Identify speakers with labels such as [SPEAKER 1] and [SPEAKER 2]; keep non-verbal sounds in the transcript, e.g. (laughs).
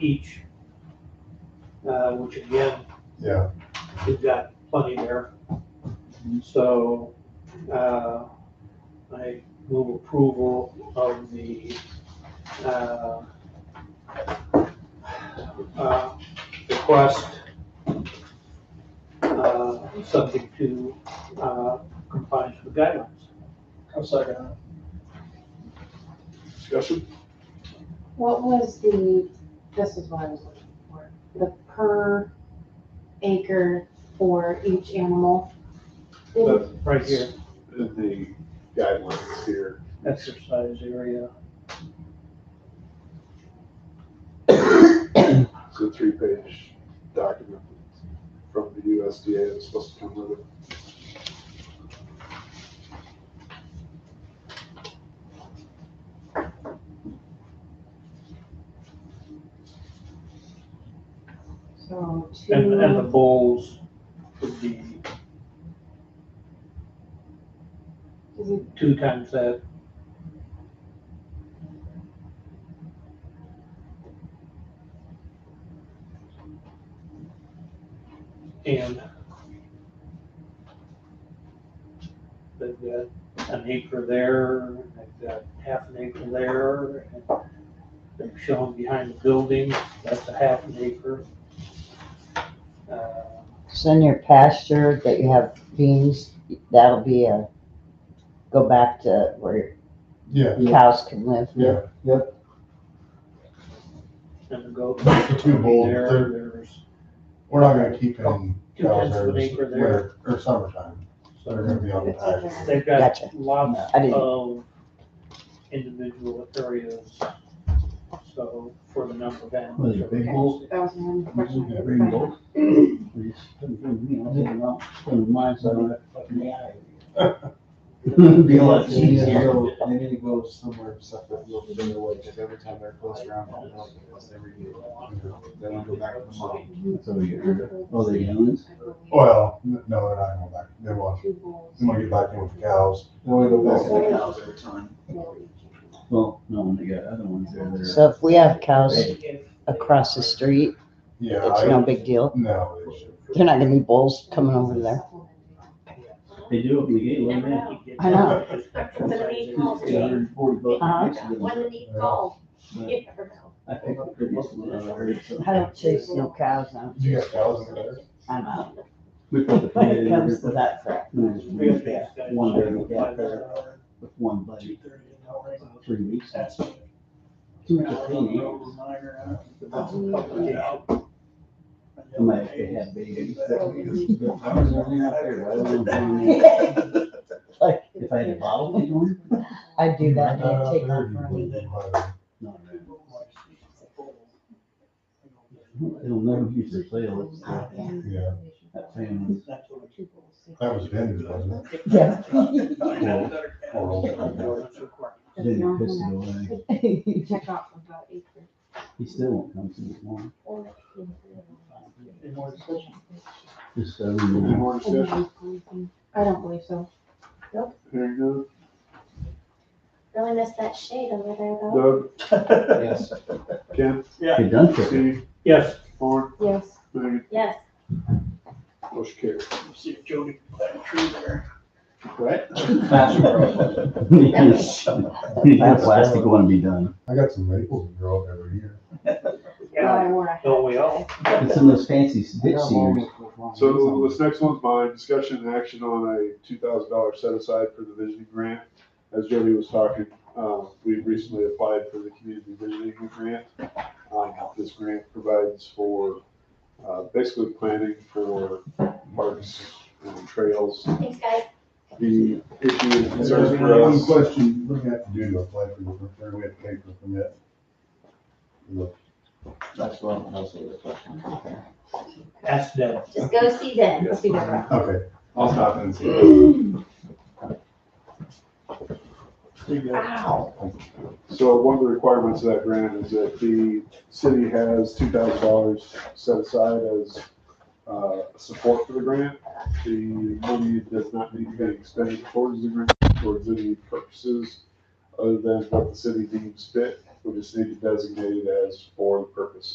[SPEAKER 1] each, uh, which again,
[SPEAKER 2] Yeah,
[SPEAKER 1] we've got plenty there. So, uh, I move approval of the, uh, uh, request, uh, subject to, uh, compliance with guidelines.
[SPEAKER 3] I'll second that.
[SPEAKER 2] discussion?
[SPEAKER 4] What was the, this is what I was looking for, the per acre for each animal? Didn't-
[SPEAKER 2] That's
[SPEAKER 1] Right here,
[SPEAKER 2] the guidelines here.
[SPEAKER 1] exercise area,
[SPEAKER 2] It's a three-page document from the USDA that's supposed to come with it.
[SPEAKER 4] So
[SPEAKER 1] and, and the
[SPEAKER 4] two,
[SPEAKER 1] bowls would be
[SPEAKER 4] is it
[SPEAKER 1] two times that, and they've got an acre there, and they've got half an acre there, and they've shown behind the building, that's a half an acre. Uh,
[SPEAKER 5] So in your pasture that you have beans, that'll be a, go back to where
[SPEAKER 2] Yeah,
[SPEAKER 5] your cows can live.
[SPEAKER 2] yeah.
[SPEAKER 1] And the goat.
[SPEAKER 6] The two bulls,
[SPEAKER 1] There,
[SPEAKER 6] they're-
[SPEAKER 1] There's,
[SPEAKER 6] We're not gonna keep any
[SPEAKER 1] Two
[SPEAKER 6] cows
[SPEAKER 1] tenths of
[SPEAKER 6] there
[SPEAKER 1] an
[SPEAKER 6] this
[SPEAKER 1] acre there.
[SPEAKER 6] winter, or summertime, so they're gonna
[SPEAKER 1] so
[SPEAKER 6] be on the
[SPEAKER 4] It's okay.
[SPEAKER 6] pasture.
[SPEAKER 1] they've got
[SPEAKER 5] Gotcha.
[SPEAKER 1] lots
[SPEAKER 5] I didn't-
[SPEAKER 1] of individual areas, so for the number of
[SPEAKER 7] Well,
[SPEAKER 1] animals.
[SPEAKER 7] the big bulls,
[SPEAKER 4] That was my only
[SPEAKER 7] you
[SPEAKER 4] question. I
[SPEAKER 7] got
[SPEAKER 4] could
[SPEAKER 7] big
[SPEAKER 4] find.
[SPEAKER 7] bulls. You know, they're not from my side of that fucking alley.
[SPEAKER 3] Be
[SPEAKER 7] Be
[SPEAKER 3] a
[SPEAKER 7] a
[SPEAKER 3] lot
[SPEAKER 7] lot
[SPEAKER 3] they need to
[SPEAKER 7] easier.
[SPEAKER 3] go, they need to go somewhere separate, look at their way, because every time they're close around, they'll help you, unless they review it. They don't go back to the model.
[SPEAKER 7] So you, oh, the youngs,
[SPEAKER 4] I believe
[SPEAKER 6] Well, n- no, they're not going back, they want,
[SPEAKER 4] Two bulls.
[SPEAKER 6] they want to get back in with the cows.
[SPEAKER 3] They only go back to the cows every time.
[SPEAKER 4] for each animal.
[SPEAKER 7] well, no, they got other ones there that
[SPEAKER 5] So if we have cows across
[SPEAKER 1] Across
[SPEAKER 5] the street,
[SPEAKER 6] Yeah,
[SPEAKER 5] it's
[SPEAKER 6] I,
[SPEAKER 5] no big deal.
[SPEAKER 6] no, they should.
[SPEAKER 5] They're not gonna be bulls coming over there.
[SPEAKER 7] are, they do open the gate a little bit.
[SPEAKER 5] I know.
[SPEAKER 7] It's a hundred and forty bucks.
[SPEAKER 5] Uh-huh.
[SPEAKER 7] next to them.
[SPEAKER 8] One neat call, you never know.
[SPEAKER 7] I picked up the most one I heard, so.
[SPEAKER 5] I don't chase no cows. I'm,
[SPEAKER 6] You got cows in
[SPEAKER 4] (laughs)
[SPEAKER 6] there?
[SPEAKER 5] I'm out
[SPEAKER 7] We put the
[SPEAKER 5] when
[SPEAKER 7] pin
[SPEAKER 5] it
[SPEAKER 7] in
[SPEAKER 5] comes
[SPEAKER 7] every,
[SPEAKER 5] to that crap.
[SPEAKER 7] one day, one day with that, feather, with one buddy, three weeks. Two to three weeks. I might have to have (laughs) babies. But I was running out there, right around the corner.
[SPEAKER 5] (laughs) Like,
[SPEAKER 7] If I had a bottle, they don't.
[SPEAKER 5] I do that.
[SPEAKER 6] Not
[SPEAKER 5] I
[SPEAKER 6] out
[SPEAKER 5] take
[SPEAKER 6] there,
[SPEAKER 5] off
[SPEAKER 6] you
[SPEAKER 5] running.
[SPEAKER 6] wouldn't, but
[SPEAKER 7] No, no. It'll never be for sale. It's uh,
[SPEAKER 6] Yeah,
[SPEAKER 7] that family.
[SPEAKER 4] Two bulls.
[SPEAKER 6] that was vintage, wasn't it?
[SPEAKER 5] Yeah.
[SPEAKER 7] Didn't piss it away.
[SPEAKER 5] (laughs)
[SPEAKER 4] Check off about acre.
[SPEAKER 7] He still won't come to me tomorrow.
[SPEAKER 4] or acre.
[SPEAKER 7] Just, uh,
[SPEAKER 2] Any
[SPEAKER 7] you know,
[SPEAKER 2] more
[SPEAKER 4] And
[SPEAKER 2] discussion?
[SPEAKER 4] then planting. I don't believe so.
[SPEAKER 2] Hearing none.
[SPEAKER 8] Really miss that shade over there though.
[SPEAKER 2] Doug,
[SPEAKER 3] Yes.
[SPEAKER 2] Ken,
[SPEAKER 7] he done
[SPEAKER 2] (laughs)
[SPEAKER 7] for it. (laughs)
[SPEAKER 2] Steve,
[SPEAKER 1] Yes.
[SPEAKER 2] Lauren,
[SPEAKER 4] Yes.
[SPEAKER 2] Megan,
[SPEAKER 8] Yes,
[SPEAKER 2] motion carried.
[SPEAKER 1] See if Jody planted a tree there.
[SPEAKER 2] Right?
[SPEAKER 3] That's right.
[SPEAKER 7] That plastic wanna be done.
[SPEAKER 6] I got some maples that grow up every year.
[SPEAKER 1] Yeah,
[SPEAKER 4] I wore a
[SPEAKER 1] don't we
[SPEAKER 4] hat
[SPEAKER 1] all?
[SPEAKER 4] today.
[SPEAKER 7] It's in those fancy ditch seers.
[SPEAKER 2] So this next one's mine, discussion and action on a two thousand dollar set aside for the visioning grant. As Jody was talking, uh, we recently applied for the community visioning grant. Um, this grant provides for, uh, basically planning for parks and trails.
[SPEAKER 8] thanks guys.
[SPEAKER 2] The issue and concerns for
[SPEAKER 6] One
[SPEAKER 2] us,
[SPEAKER 6] question, what do you have to do to apply for the, there we have to pay for the permit? Look,
[SPEAKER 3] That's what I'm asking the question.
[SPEAKER 1] Ask them.
[SPEAKER 8] Just go see them. See them.
[SPEAKER 6] Okay, I'll stop and see.
[SPEAKER 2] so one of the requirements of that grant is that the city has two thousand dollars set aside as, uh, support for the grant. The money does not need to be expended towards the grant, towards any purposes other than what the city deems fit. We just need to designate it as for the purpose.